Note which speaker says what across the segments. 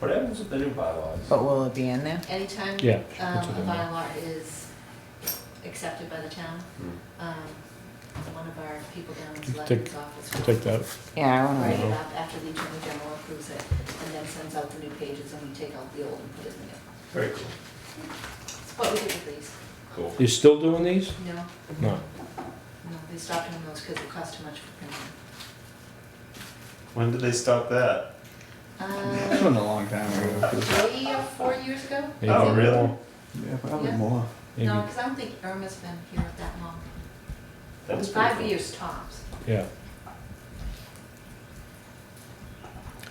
Speaker 1: What happens with the new bylaws?
Speaker 2: Oh.
Speaker 3: But will it be in there?
Speaker 4: Anytime
Speaker 5: Yeah,
Speaker 4: um,
Speaker 5: that's what
Speaker 4: a
Speaker 5: I meant.
Speaker 4: bylaw is accepted by the town,
Speaker 1: Hmm.
Speaker 4: um, one of our people down in
Speaker 5: Take-
Speaker 4: Selectmen's office will
Speaker 5: Take Oh. that.
Speaker 3: Yeah, I
Speaker 4: write
Speaker 3: want
Speaker 4: it up after the attorney general approves it, and then sends out the new pages, and we take out the old and put it in there.
Speaker 1: Very cool.
Speaker 4: It's what we did with these.
Speaker 1: Cool.
Speaker 5: You're still doing these?
Speaker 4: No,
Speaker 5: No.
Speaker 4: no, they stopped doing those because it cost too much for printing.
Speaker 1: When did they stop that?
Speaker 2: That
Speaker 4: Um,
Speaker 2: was a long time ago.
Speaker 4: three or four years ago?
Speaker 5: Maybe
Speaker 1: Oh,
Speaker 5: more.
Speaker 1: really?
Speaker 2: Yeah, probably
Speaker 4: Yeah.
Speaker 2: more.
Speaker 5: Maybe-
Speaker 4: No, because I don't think Irma's been here that long.
Speaker 1: That is pretty
Speaker 4: Five
Speaker 1: cool.
Speaker 4: years tops.
Speaker 5: Yeah.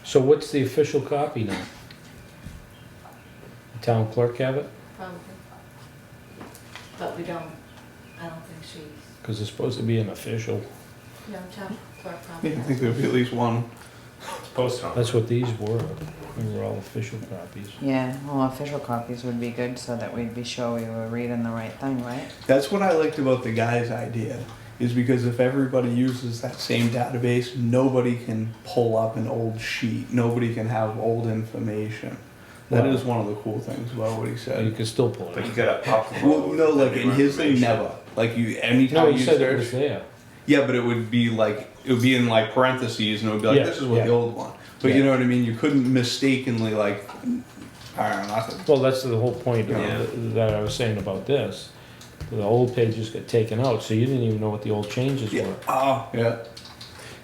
Speaker 5: So what's the official copy now? The Town clerk have it?
Speaker 4: Probably. But we don't, I don't think she's,
Speaker 5: Because it's supposed to be an official.
Speaker 4: no, town clerk
Speaker 2: Yeah,
Speaker 4: probably.
Speaker 2: I think there'll be at least one.
Speaker 1: Post on.
Speaker 5: That's what these were. They were all official copies.
Speaker 3: to. Yeah, well, official copies would be good so that we'd be sure we were reading the right thing, right?
Speaker 2: That's what I liked about the guy's idea, is because if everybody uses that same database, nobody can pull up an old sheet. Nobody can have old information. That
Speaker 5: Wow.
Speaker 2: is one of the cool things about what he
Speaker 5: You
Speaker 2: said.
Speaker 5: could still pull it.
Speaker 1: But you gotta upload.
Speaker 2: Well, no, like
Speaker 1: the
Speaker 2: in
Speaker 1: new
Speaker 2: his thing,
Speaker 1: information.
Speaker 2: never. Like you, anytime
Speaker 5: No,
Speaker 2: you
Speaker 5: you said it
Speaker 2: search-
Speaker 5: was there.
Speaker 2: Yeah, but it would be like it would be in like parentheses, and it would be like
Speaker 5: Yeah,
Speaker 2: this is what
Speaker 5: yeah.
Speaker 2: the old one. But
Speaker 5: Yeah.
Speaker 2: you know what I mean. You couldn't mistakenly like. I don't know. I think-
Speaker 5: Well, that's the whole point of-
Speaker 1: Yeah.
Speaker 5: that I was saying about this. The old pages got taken out, so you didn't even know what the old changes
Speaker 2: Yeah.
Speaker 5: were.
Speaker 2: Oh, yeah.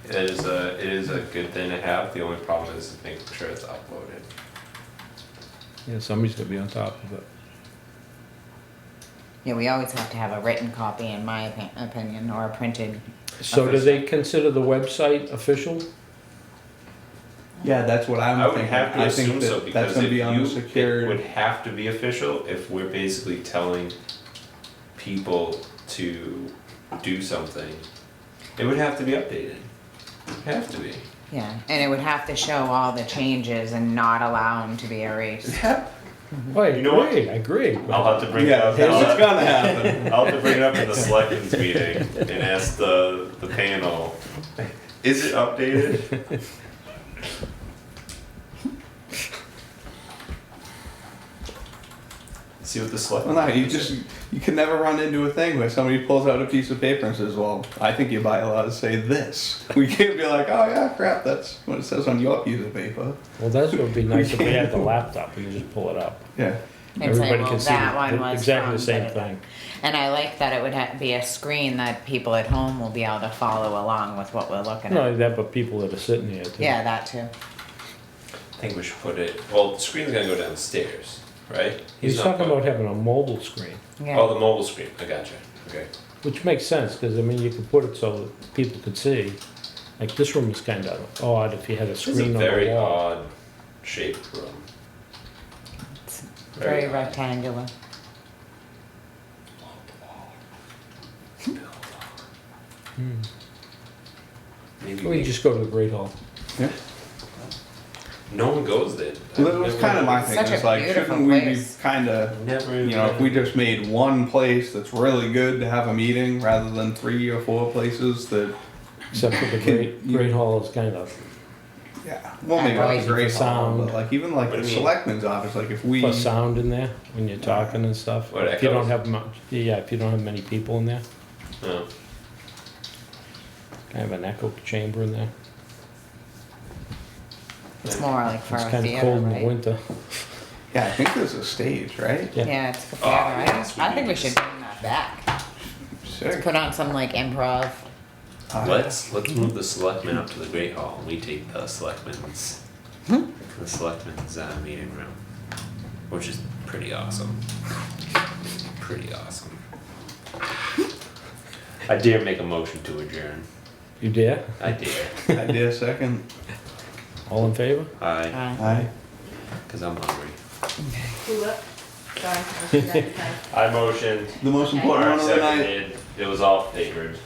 Speaker 1: It is a, it is a good thing to have, the only problem is making sure it's uploaded.
Speaker 5: Yeah, somebody's gonna be on top of it.
Speaker 3: Yeah, we always have to have a written copy, in my opi- opinion, or a printed.
Speaker 5: So do they consider the website official?
Speaker 2: Yeah, that's what I'm
Speaker 1: I would
Speaker 2: thinking.
Speaker 1: have to
Speaker 2: I
Speaker 1: assume
Speaker 2: think that
Speaker 1: so,
Speaker 2: that's
Speaker 1: because
Speaker 2: going
Speaker 1: if
Speaker 2: to be on the
Speaker 1: you, it would
Speaker 2: secured.
Speaker 1: have to be official if we're basically telling people to do something. It would have to be updated. Have to be.
Speaker 3: Yeah, and it would have to show all the changes and not allow them to be erased.
Speaker 5: Oh, I
Speaker 1: You know what?
Speaker 5: agree, I agree.
Speaker 1: I'll have to bring it
Speaker 2: Yeah,
Speaker 1: up.
Speaker 2: it's going to happen.
Speaker 1: I'll have to bring it up at the selectmen's meeting and ask the, the panel, is it updated? See what the
Speaker 2: Well,
Speaker 1: selectmen.
Speaker 2: no, you just you can never run into a thing where somebody pulls out a piece of paper and says, "Well, I think your bylaws say this." We can't be like, "Oh yeah, crap, that's what it says on your piece of paper."
Speaker 5: Well, that's what would be nice if we had the laptop, we could just pull it up.
Speaker 2: Yeah.
Speaker 3: And say,
Speaker 5: Everybody
Speaker 3: well,
Speaker 5: can see
Speaker 3: that
Speaker 5: the-
Speaker 3: one was
Speaker 5: Exactly
Speaker 3: from
Speaker 5: the same
Speaker 3: da-da-da.
Speaker 5: thing.
Speaker 3: And I like that it would ha- be a screen that people at home will be able to follow along with what we're looking
Speaker 5: Not
Speaker 3: at.
Speaker 5: only that, but people that are sitting here too.
Speaker 3: Yeah, that too.
Speaker 1: I think we should put it, well, the screen's gonna go downstairs, right?
Speaker 5: He's
Speaker 1: not
Speaker 5: talking
Speaker 1: put-
Speaker 5: about having a mobile screen,
Speaker 3: Yeah.
Speaker 1: Oh, the mobile screen, I gotcha, okay.
Speaker 5: which makes sense, because I mean, you could put it so that people could see. Like this room is kind of odd if you had a
Speaker 1: This is a
Speaker 5: screen on the
Speaker 1: very
Speaker 5: wall.
Speaker 1: odd shaped room.
Speaker 3: It's very
Speaker 1: odd.
Speaker 3: rectangular.
Speaker 5: Hmm.
Speaker 1: Maybe
Speaker 5: We
Speaker 1: we,
Speaker 5: could just go to the Great Hall.
Speaker 1: no one goes there.
Speaker 2: Well, that was kind of my thing.
Speaker 3: Such a
Speaker 2: It's like,
Speaker 3: beautiful
Speaker 2: shouldn't we be
Speaker 3: place.
Speaker 2: kind of,
Speaker 1: Never.
Speaker 2: you know, if we just made one place that's really good to have a meeting rather than three or four places that,
Speaker 5: Except for the
Speaker 2: Can
Speaker 5: Great,
Speaker 2: you-
Speaker 5: Great Hall is kind of,
Speaker 2: yeah, well, maybe
Speaker 3: Right.
Speaker 2: not the great hall,
Speaker 5: Sound.
Speaker 2: but like even like
Speaker 1: What do
Speaker 2: the
Speaker 1: you mean?
Speaker 2: selectmen's office, like if we,
Speaker 5: plus sound in there when you're talking and stuff.
Speaker 1: What,
Speaker 5: If you don't
Speaker 1: echoes?
Speaker 5: have much, yeah, if you don't have many people in there,
Speaker 1: No.
Speaker 5: kind of an echo chamber in there.
Speaker 3: It's more like for
Speaker 5: It's
Speaker 3: a
Speaker 5: kind of
Speaker 3: theater,
Speaker 5: cold in the
Speaker 3: right?
Speaker 5: winter.
Speaker 2: yeah, I think there's a stage, right?
Speaker 5: Yeah.
Speaker 3: Yeah, it's for
Speaker 1: Oh,
Speaker 3: theater. I
Speaker 1: yes, we
Speaker 3: I think
Speaker 1: do
Speaker 3: we
Speaker 1: this.
Speaker 3: should bring that back.
Speaker 2: Sick.
Speaker 3: Put on some like improv.
Speaker 2: Uh,
Speaker 1: Let's let's move the selectmen up to the great hall and we take the selectmen's
Speaker 2: Hmm?
Speaker 1: the selectmen's uh, meeting room, which is pretty awesome. Pretty awesome. I dare make a motion to adjourn.
Speaker 5: You dare?
Speaker 1: I dare.
Speaker 2: Idea second.
Speaker 5: All in favor?
Speaker 1: I,
Speaker 3: Uh,
Speaker 2: Aye.
Speaker 1: because I'm hungry.
Speaker 4: Who up? Sorry, I was trying to type.
Speaker 1: I motioned.
Speaker 2: The most
Speaker 4: Okay.
Speaker 2: important
Speaker 1: Mark
Speaker 2: one of the night.
Speaker 1: seconded. It was all favored.